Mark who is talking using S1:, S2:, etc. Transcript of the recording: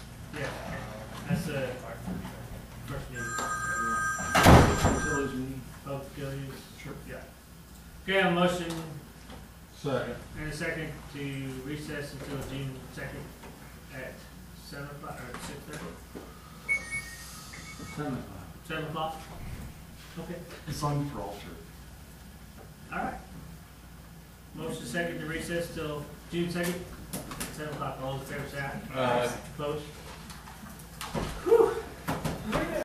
S1: uh, first meeting
S2: Utilities meeting.
S1: of Gillies.
S2: Sure.
S1: Yeah. Okay, a motion
S2: Second.
S1: and a second to recess until June second at seven o'clock, or six thirty,
S2: Seven
S1: seven o'clock? Okay,
S2: It's on for all sure.
S1: all right. Motion second to recess till June second, seven o'clock, all in favor, say aye.
S2: Aye.
S1: Opposed?